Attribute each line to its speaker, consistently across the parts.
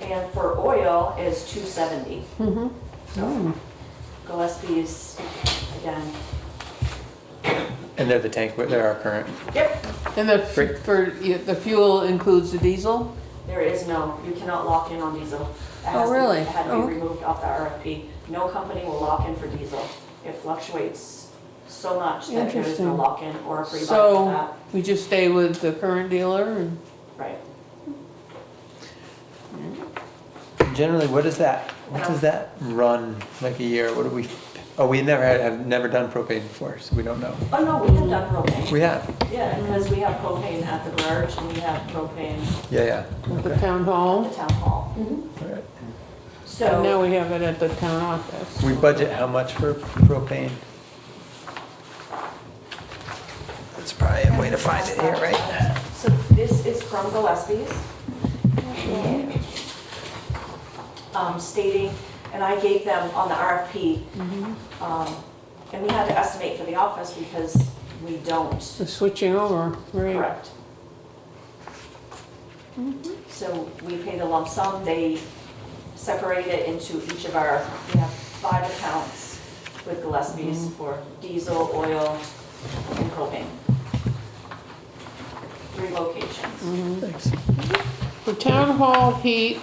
Speaker 1: and for oil is two seventy.
Speaker 2: Mm-hmm.
Speaker 1: So
Speaker 2: Mm.
Speaker 1: Gillespie's, again,
Speaker 3: And they're the tank, they're our current.
Speaker 1: yep,
Speaker 2: And the,
Speaker 3: Great.
Speaker 2: f- for, yeah, the fuel includes the diesel?
Speaker 1: there is no, you cannot lock in on diesel. That
Speaker 2: Oh,
Speaker 1: has to-
Speaker 2: really?
Speaker 1: Had to
Speaker 2: Oh,
Speaker 1: be
Speaker 2: okay.
Speaker 1: removed off the RFP. No company will lock in for diesel. It fluctuates so much that there is no
Speaker 2: Interesting.
Speaker 1: lock-in or a pre-buy for
Speaker 2: So
Speaker 1: that.
Speaker 2: we just stay with the current dealer and
Speaker 1: Right.
Speaker 3: Generally, what does that, what does that run like a year? What do we, oh, we never had, have never done propane before, so we don't know.
Speaker 1: Oh, no, we have done propane.
Speaker 3: We have,
Speaker 1: Yeah, because we have propane at the garage and we have propane
Speaker 3: yeah, yeah.
Speaker 2: at the
Speaker 3: Okay.
Speaker 2: town
Speaker 1: at
Speaker 2: hall.
Speaker 1: the town hall.
Speaker 2: Mm-hmm.
Speaker 3: All right.
Speaker 2: And now
Speaker 1: So
Speaker 2: we have it at the town office.
Speaker 3: We budget how much for propane? That's probably a way to find it here, right?
Speaker 1: So this is from Gillespie's. Um, Stating, and I gave them on the RFP, um, and we had to estimate for the office because we don't.
Speaker 2: The switching over, right?
Speaker 1: Correct. Mm-hmm. So we pay the lump sum, they separate it into each of our, we have five accounts with
Speaker 2: Mm-hmm.
Speaker 1: Gillespie's for diesel, oil, and propane. Three
Speaker 2: Mm-hmm.
Speaker 1: locations.
Speaker 3: Thanks.
Speaker 2: For town hall heat,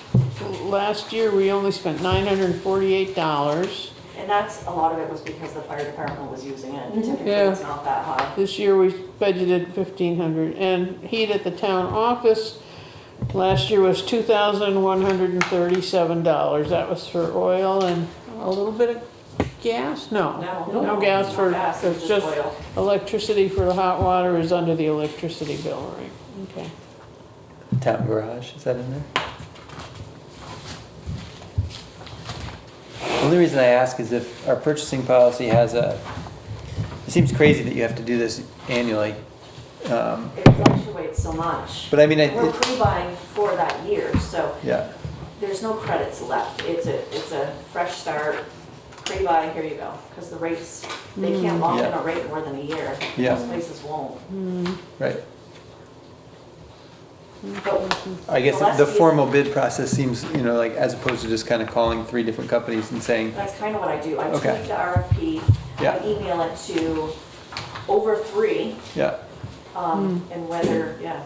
Speaker 2: last year we only spent nine hundred and forty-eight dollars.
Speaker 1: And that's, a lot of it was because the fire department was using it, typically it's
Speaker 2: Mm-hmm. Yeah.
Speaker 1: not that high.
Speaker 2: This year we budgeted fifteen hundred and heat at the town office last year was two thousand one hundred and thirty-seven dollars. That was for oil and a little bit of gas? No.
Speaker 1: No.
Speaker 2: No gas for,
Speaker 1: Gas,
Speaker 2: it's
Speaker 1: just
Speaker 2: just
Speaker 1: oil.
Speaker 2: electricity for the hot water is under the electricity bill, right? Okay.
Speaker 3: Town garage, is that in there? Only reason I ask is if our purchasing policy has a, it seems crazy that you have to do this annually. Um,
Speaker 1: It fluctuates so much.
Speaker 3: But I mean, I,
Speaker 1: We're pre-buying for that year, so
Speaker 3: yeah,
Speaker 1: there's no credits left. It's a, it's a fresh start, pre-buy, here you go. Because the rates, they can't lock in
Speaker 3: Yeah.
Speaker 1: a rate more than a year.
Speaker 3: Yeah.
Speaker 1: Most places won't.
Speaker 3: right.
Speaker 1: But
Speaker 3: I guess the- the
Speaker 1: Gillespie's-
Speaker 3: formal bid process seems, you know, like, as opposed to just kind of calling three different companies and saying,
Speaker 1: that's kind of what I do. I
Speaker 3: Okay.
Speaker 1: tweak the RFP,
Speaker 3: Yeah.
Speaker 1: I email it to over three,
Speaker 3: yeah,
Speaker 1: um, and whether, yeah.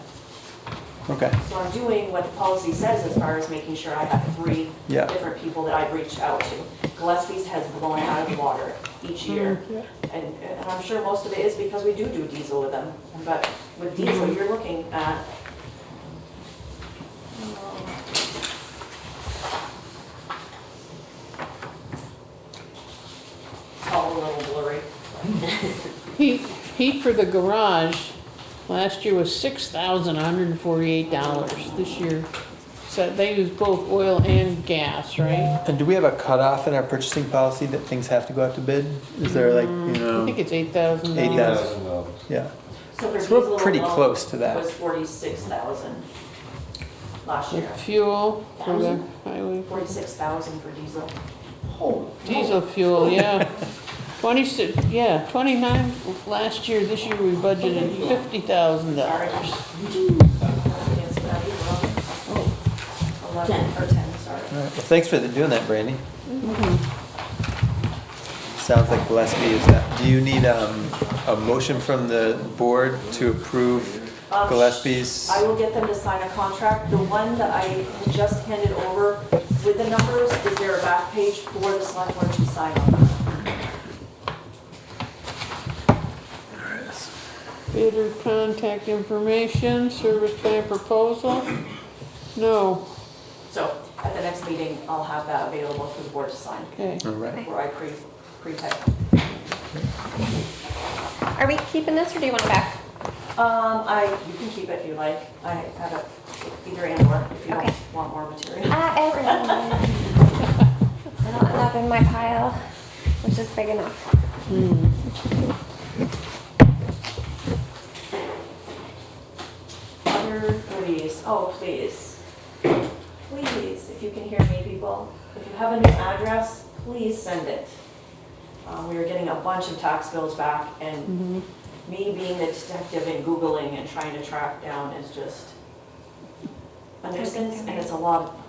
Speaker 3: okay,
Speaker 1: So I'm doing what the policy says as far as making sure I have three
Speaker 3: Yeah.
Speaker 1: different people that I've reached out to. Gillespie's has blown out of the water each
Speaker 2: Mm.
Speaker 1: year. And, and I'm sure most of it is because we do do diesel with them. But with diesel, you're looking at, it's all a little blurry.
Speaker 2: Heat, heat for the garage last year was six thousand one hundred and forty-eight dollars. This year, so they use both oil and gas, right?
Speaker 3: and do we have a cutoff in our purchasing policy that things have to go out to bid? Is there like, you
Speaker 2: I think
Speaker 3: know,
Speaker 2: it's eight thousand
Speaker 3: Mm. Eight
Speaker 2: dollars.
Speaker 3: thousand.
Speaker 4: $8,000.
Speaker 3: yeah,
Speaker 1: So for
Speaker 3: So we're
Speaker 1: diesel
Speaker 3: pretty
Speaker 1: alone,
Speaker 3: close to that.
Speaker 1: It was forty-six thousand last
Speaker 2: The
Speaker 1: year.
Speaker 2: fuel for the highway,
Speaker 1: Forty-six thousand for diesel.
Speaker 2: diesel fuel, yeah. Twenty-six, yeah, twenty-nine last year, this year we budgeted fifty thousand dollars.
Speaker 1: Yes, that is wrong. Eleven, or ten, sorry.
Speaker 3: all right, well, thanks for the- doing that, Brandy. Sounds like Gillespie is that, do you need, um, a motion from the board to approve
Speaker 1: Um,
Speaker 3: Gillespie's?
Speaker 1: I will get them to sign a contract. The one that I had just handed over with the numbers, is there a back page for the select board to sign on?
Speaker 2: Bidder contact information, service plan proposal? No,
Speaker 1: So at the next meeting, I'll have that available for the board to sign,
Speaker 2: okay.
Speaker 3: All right.
Speaker 1: where I pre, pre-type.
Speaker 5: Are we keeping this or do you want it back?
Speaker 1: Um, I, you can keep it if you like. I have it either and or, if you
Speaker 5: Okay.
Speaker 1: don't want more material.
Speaker 5: Uh, everyone. I don't end up in my pile, which is big enough.
Speaker 1: Other goodies, oh, please. Please, if you can hear me, people, if you have a new address, please send it. Um, we were getting a bunch of tax bills back and me being the detective and Googling and trying to track down is just a nuisance and it's a lot,